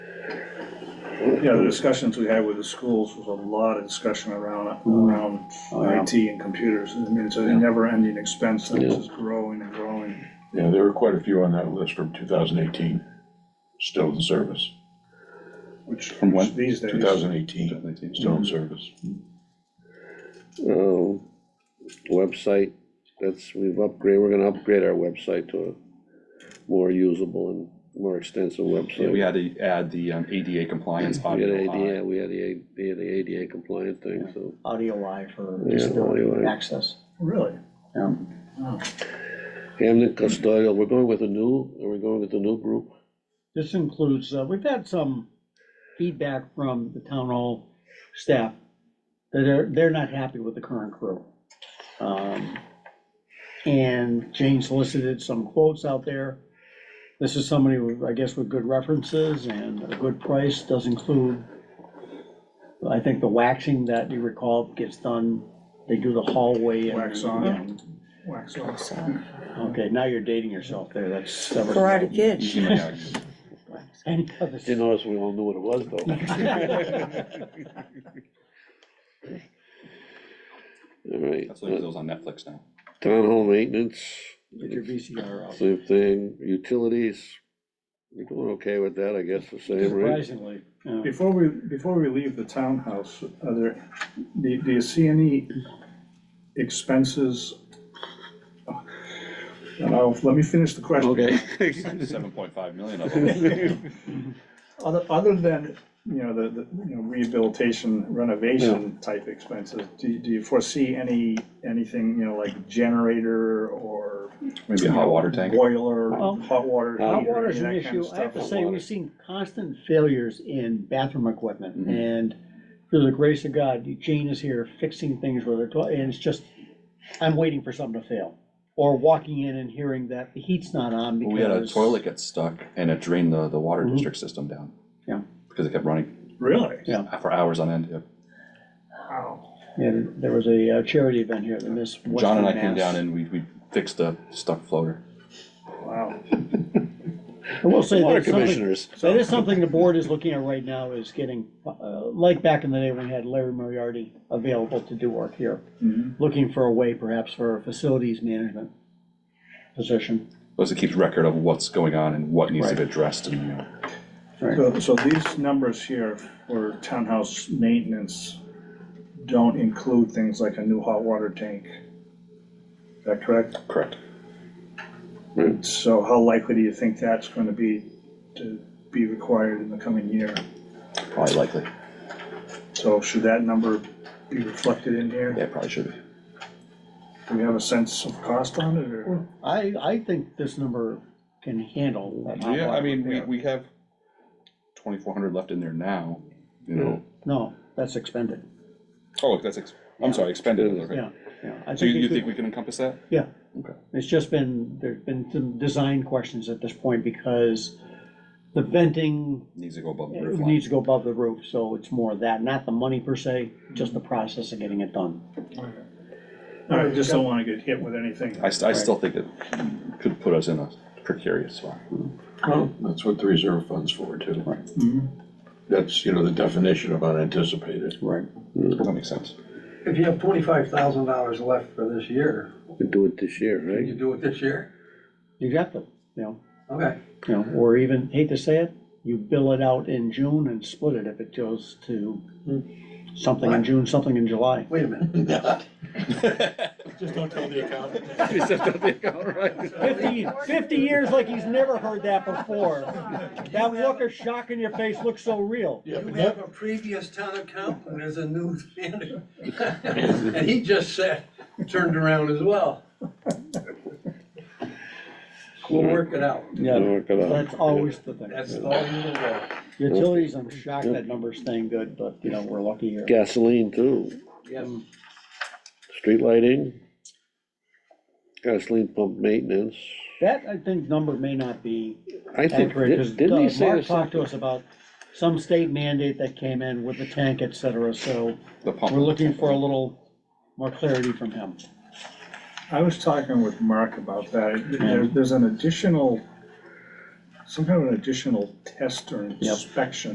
you know, the discussions we had with the schools was a lot of discussion around, around Oh, yeah. IT and computers. I mean, it's a never-ending expense that is growing and growing. Yeah, there were quite a few on that list from two thousand eighteen, still in service, Which, From which when? these two days, thousand eighteen, still in service. uh, website, that's, we've upgraded, we're gonna upgrade our website to a more usable and more extensive Yeah, we website. had to add the um, ADA compliance We had audio on. ADA, we had the, A- we had the ADA compliant thing, so, Audio Y for Yeah, audio disability eye. access. really? Yeah. Hamden Custodial, we're going with a new, are we going with the new group? This includes, uh, we've had some feedback from the town hall staff that are, they're not happy with the current crew. Um, And Jane solicited some quotes out there. This is somebody, with, I guess, with good references and a good price, does include, I think the waxing that you recall gets done, they do the hallway and. Wax on. and- Wax off. Okay, now you're dating yourself there, that's. several- Karate Kid. You might have- Any other- Didn't notice we all knew what it was, though. All right, That's like uh, those on Netflix now. town hall maintenance, Get your VCR out. same thing, utilities, we're doing okay with that, I guess, the same, right? Surprisingly, yeah. Before we, before we leave the townhouse, are there, do, do you see any expenses? Now, let me finish the question. Seven point five million of them. Other, other than, you know, the, the, you know, rehabilitation renovation type expenses, do, you- do you foresee any, anything, you know, like generator or? Maybe a hot water tank. Boiler, Well, hot water. Hot heater, water's any of that an kind of issue. I have to stuff. say, water. we've seen constant failures in bathroom equipment. Mhm. And through the grace of God, Jane is here fixing things with her, toi- and it's just, I'm waiting for something to fail. Or walking in and hearing that the heat's not on because. We had a toilet get stuck and it drained the, the water Mhm. district system down. Yeah. Because it kept running Really? for hours on end. yeah. Wow. And there was a uh, charity event here at the Miss Western John and I came Mass. down and we, we fixed the stuck floater. Wow. I will say Water that something, commissioners, That is something the board is looking at right now, is getting, uh, like back in the day when we had Larry Moriarty available to do work here. Mhm. Mm-hmm. Looking for a way perhaps for a facilities management position. Plus it keeps record of what's going on and what needs to be Right. addressed and, you know. So, so these numbers here for townhouse maintenance don't include things like a new hot water tank. Is that correct? Correct. So how likely do you think that's gonna be to be required in the coming year? Probably likely. So should that number be reflected in here? Yeah, probably should be. Do we have a sense of cost on it or? I, I think this number can handle that. hot Yeah, I water. mean, we, we have twenty-four hundred left in there now, you Mm-hmm. know. No, that's expended, Oh, that's, ex- I'm sorry, expended, okay. yeah, yeah. I So you, you it could- think we can encompass that? Yeah. Okay. It's just been, there've been some design questions at this point because the venting Needs to go above the It roof line. needs to go above the roof, so it's more that, not the money per se, just the process of getting it done. I just don't wanna get hit with anything. I, st- I still think it could put us in a precarious spot. That's what the reserve fund's for too. Mhm. Mm-hmm. That's, you know, the definition of unanticipated. Right. That makes sense. If you have twenty-five thousand dollars left for this year, we do it this year, can right? you do it this year? You got to, you know, Okay, you know, or even, hate to say it, you bill it out in June and split it if it goes to something in June, something in July. wait a minute. Just don't tell the accountant. Fifty, fifty years like he's never heard that before. That look of shock in your face looks so real. You have a previous town accountant as a new manager. And he just said, turned around as well. We'll work it out. Yeah, Work it out. that's always the thing. That's all you need to Utilities, I'm shocked that number's staying good, but, you know, we're lucky here. Gasoline too, know. street lighting, gasoline pump maintenance. That, I think, number may not be I think, accurate, because did- didn't he say Mark there's talked to something? us about some state mandate that came in with the tank, et cetera, so The pump. we're looking for a little more clarity from him. I was talking with Mark about that. There, there's an additional, some kind of an additional test or inspection